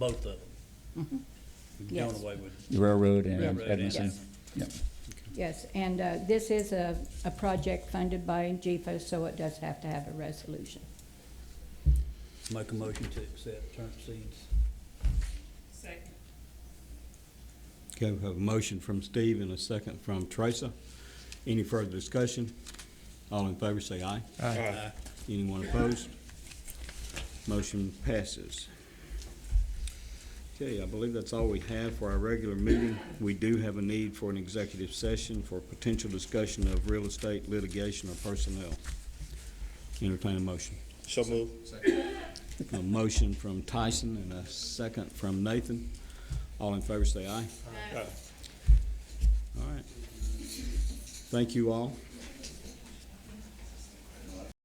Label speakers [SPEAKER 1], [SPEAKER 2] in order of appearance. [SPEAKER 1] both of them. We've done
[SPEAKER 2] Mm-hmm. Yes.
[SPEAKER 1] away with,
[SPEAKER 3] The railroad and
[SPEAKER 1] Railroad,
[SPEAKER 3] Edmondson.
[SPEAKER 2] yes.
[SPEAKER 3] Yep.
[SPEAKER 2] Yes, and uh, this is a, a project funded by GFO, so it does have to have a resolution.
[SPEAKER 1] make a motion to accept term seeds.
[SPEAKER 4] Second.
[SPEAKER 5] Okay, we have a motion from Steve and a second from Teresa. Any further discussion? All in favor, say aye.
[SPEAKER 1] Aye.
[SPEAKER 5] Anyone opposed? Motion passes. Okay, I believe that's all we have for our regular meeting. We do have a need for an executive session for potential discussion of real estate litigation or personnel. Entertain a motion.
[SPEAKER 6] So move.
[SPEAKER 5] A motion from Tyson and a second from Nathan. All in favor, say aye. All right. Thank you all.